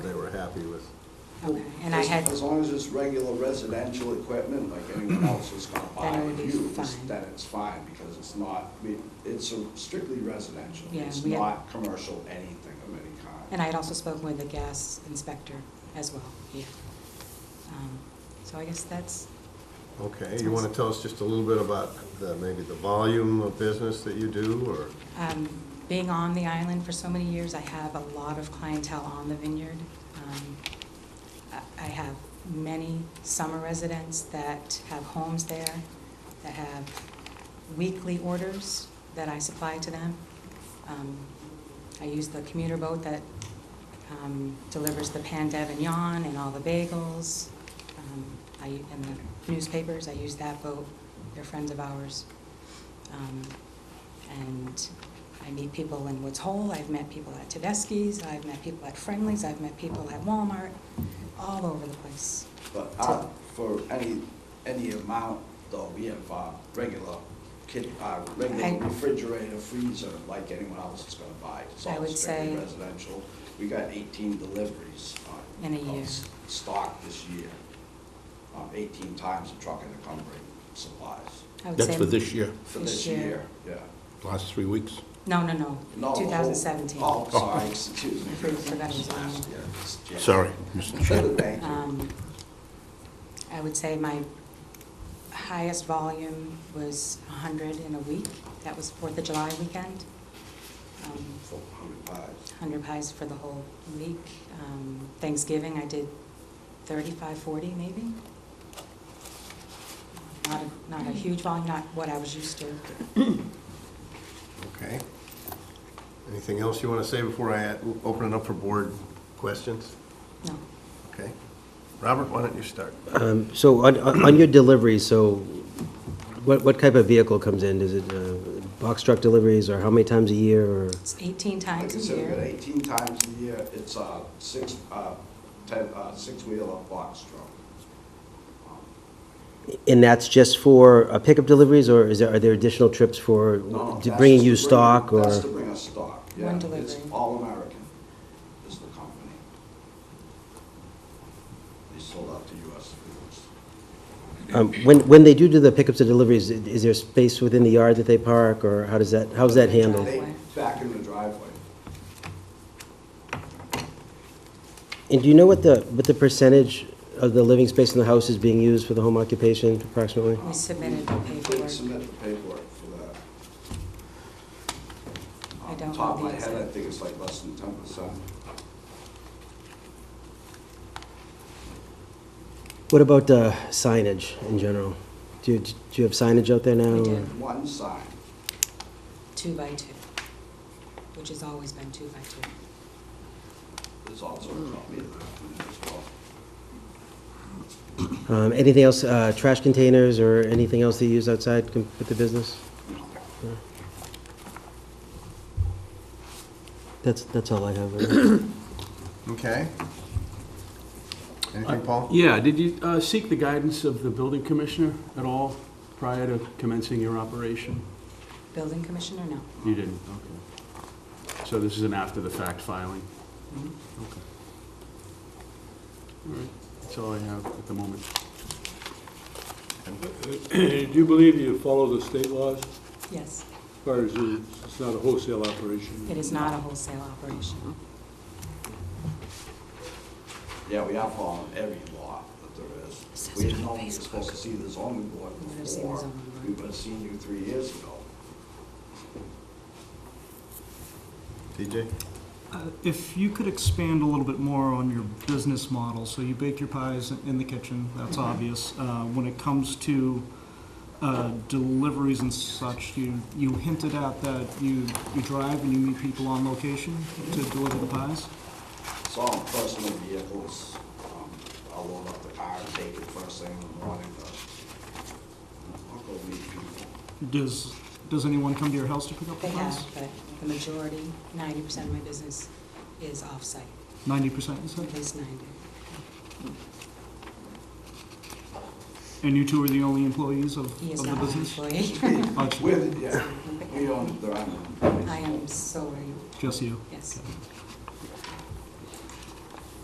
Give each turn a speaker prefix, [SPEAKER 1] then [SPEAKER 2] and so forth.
[SPEAKER 1] we're happy with.
[SPEAKER 2] Okay, and I had-
[SPEAKER 3] As as long as it's regular residential equipment, like anyone else is gonna buy
[SPEAKER 2] Then it would
[SPEAKER 3] and
[SPEAKER 2] be
[SPEAKER 3] use,
[SPEAKER 2] fine.
[SPEAKER 3] then it's fine, because it's not, I mean, it's a strictly residential.
[SPEAKER 2] Yeah,
[SPEAKER 3] It's
[SPEAKER 2] we had-
[SPEAKER 3] not commercial anything of any kind.
[SPEAKER 2] And I had also spoken with the gas inspector as well, yeah. Um, So I guess that's,
[SPEAKER 1] Okay, you want to tell us just a little bit about the, maybe the volume of business that you do, or?
[SPEAKER 2] um, being on the island for so many years, I have a lot of clientele on the vineyard. Um, I- I have many summer residents that have homes there, that have weekly orders that I supply to them. Um, I use the commuter boat that um, delivers the pan d'Avignon and all the bagels. Um, I, and the newspapers, I use that boat, they're friends of ours. Um, and I meet people in Woods Hole, I've met people at Tedeschi's, I've met people at Friendly's, I've met people at Walmart, all over the place.
[SPEAKER 3] But uh, for any, any amount, though, we have uh, regular kid, uh,
[SPEAKER 2] I-
[SPEAKER 3] regular refrigerator, freezer, like anyone else is gonna buy. It's
[SPEAKER 2] I
[SPEAKER 3] all
[SPEAKER 2] would
[SPEAKER 3] strictly
[SPEAKER 2] say-
[SPEAKER 3] residential. We got eighteen deliveries on.
[SPEAKER 2] In a year.
[SPEAKER 3] of s- Stock this year. Um, Eighteen times the truck and the company supplies
[SPEAKER 2] I would
[SPEAKER 4] That's
[SPEAKER 2] say-
[SPEAKER 4] for this year,
[SPEAKER 3] for
[SPEAKER 2] This
[SPEAKER 3] this
[SPEAKER 2] year.
[SPEAKER 3] year, yeah.
[SPEAKER 4] last three weeks.
[SPEAKER 2] No, no, no,
[SPEAKER 3] No, the whole-
[SPEAKER 2] 2017.
[SPEAKER 3] Oh, sorry, excuse me.
[SPEAKER 2] Fruit production.
[SPEAKER 3] Last year, it's Jan-
[SPEAKER 4] Sorry, Mr. Chairman.
[SPEAKER 3] Thank you.
[SPEAKER 2] Um, I would say my highest volume was 100 in a week. That was Fourth of July weekend. Um,
[SPEAKER 3] For hundred pies.
[SPEAKER 2] 100 pies for the whole week. Um, Thanksgiving, I did 35, 40 maybe. Not a, not a huge volume, not what I was used to.
[SPEAKER 1] Okay. Anything else you want to say before I add- open it up for board questions?
[SPEAKER 2] No.
[SPEAKER 1] Okay. Robert, why don't you start?
[SPEAKER 5] Um, So on- on on your deliveries, so what what type of vehicle comes in? Is it uh, box truck deliveries, or how many times a year, or?
[SPEAKER 2] It's 18
[SPEAKER 3] Like
[SPEAKER 2] times
[SPEAKER 3] I
[SPEAKER 2] a
[SPEAKER 3] said, we got
[SPEAKER 2] year.
[SPEAKER 3] eighteen times a year, it's a six, uh, ten, uh, six-wheeler box truck.
[SPEAKER 5] And that's just for uh, pickup deliveries, or is there, are there additional trips for
[SPEAKER 3] No,
[SPEAKER 5] d-
[SPEAKER 3] that's
[SPEAKER 5] bringing
[SPEAKER 3] to
[SPEAKER 5] you
[SPEAKER 3] bring-
[SPEAKER 5] stock, or?
[SPEAKER 3] That's to bring us stock, yeah.
[SPEAKER 2] One
[SPEAKER 3] It's
[SPEAKER 2] delivery.
[SPEAKER 3] All American is the company. They sold out to US Foods.
[SPEAKER 5] um, When, when they do do the pickups and deliveries, i- is there space within the yard that they park, or how does that, how's that handled?
[SPEAKER 3] They
[SPEAKER 2] Driveway.
[SPEAKER 3] back in the driveway.
[SPEAKER 5] And do you know what the, what the percentage of the living space in the house is being used for the home occupation approximately?
[SPEAKER 2] We submitted the
[SPEAKER 3] We did
[SPEAKER 2] paperwork.
[SPEAKER 3] submit the paperwork for that.
[SPEAKER 2] I
[SPEAKER 3] Off the
[SPEAKER 2] don't
[SPEAKER 3] Top of
[SPEAKER 2] know
[SPEAKER 3] my
[SPEAKER 2] the
[SPEAKER 3] head, I
[SPEAKER 2] exact-
[SPEAKER 3] think it's like less than ten percent.
[SPEAKER 5] What about uh, signage in general? Do you, do you have signage out there now?
[SPEAKER 2] We do.
[SPEAKER 5] or-
[SPEAKER 3] One sign,
[SPEAKER 2] Two by two, which has always been two by two.
[SPEAKER 3] there's also a copy of that as well.
[SPEAKER 5] Um, Anything else, uh, trash containers or anything else that you use outside com- with the business? That's, that's all I have. really.
[SPEAKER 1] Okay. Anything, Paul?
[SPEAKER 6] Yeah, did you uh, seek the guidance of the building commissioner at all prior to commencing your operation?
[SPEAKER 2] Building commissioner, no.
[SPEAKER 6] You didn't, okay. So this is an after-the-fact filing? Okay. All right, that's all I have at the moment.
[SPEAKER 7] Do you believe you follow the state laws as
[SPEAKER 2] Yes,
[SPEAKER 7] far as the- it's not a wholesale operation?
[SPEAKER 2] it is not a wholesale operation.
[SPEAKER 3] Yeah, we are following every law that there is.
[SPEAKER 2] Says
[SPEAKER 3] We
[SPEAKER 2] it
[SPEAKER 3] didn't
[SPEAKER 2] on
[SPEAKER 3] know we were
[SPEAKER 2] Facebook.
[SPEAKER 3] supposed to see the zoning board
[SPEAKER 2] We would've seen the
[SPEAKER 3] before.
[SPEAKER 2] zoning board.
[SPEAKER 3] We would have seen you three years ago.
[SPEAKER 1] TJ?
[SPEAKER 8] Uh, If you could expand a little bit more on your business model, so you bake your pies in the kitchen, that's
[SPEAKER 2] Mm-hmm.
[SPEAKER 8] obvious. Uh, When it comes to uh, deliveries and such, you, you hinted at that you, you drive and you meet people on location
[SPEAKER 2] Mm-hmm.
[SPEAKER 8] to deliver the pies?
[SPEAKER 3] Saw them personal vehicles, um, I'll load up the car and take it first thing in the morning, but I'll go meet people.
[SPEAKER 8] Does, does anyone come to your house to pick up the
[SPEAKER 2] They have,
[SPEAKER 8] pies?
[SPEAKER 2] but the majority, 90% of my business is off-site,
[SPEAKER 8] Ninety percent, you said?
[SPEAKER 2] at least 90.
[SPEAKER 8] And you two are the only employees of,
[SPEAKER 2] Mm-hmm. He
[SPEAKER 8] of
[SPEAKER 2] is
[SPEAKER 8] the
[SPEAKER 2] not my
[SPEAKER 8] business?
[SPEAKER 2] employee.
[SPEAKER 8] Oh,
[SPEAKER 3] With, yeah, we own it, they're on it.
[SPEAKER 2] I am solely,
[SPEAKER 8] it's Just you?
[SPEAKER 2] yes.
[SPEAKER 8] Okay.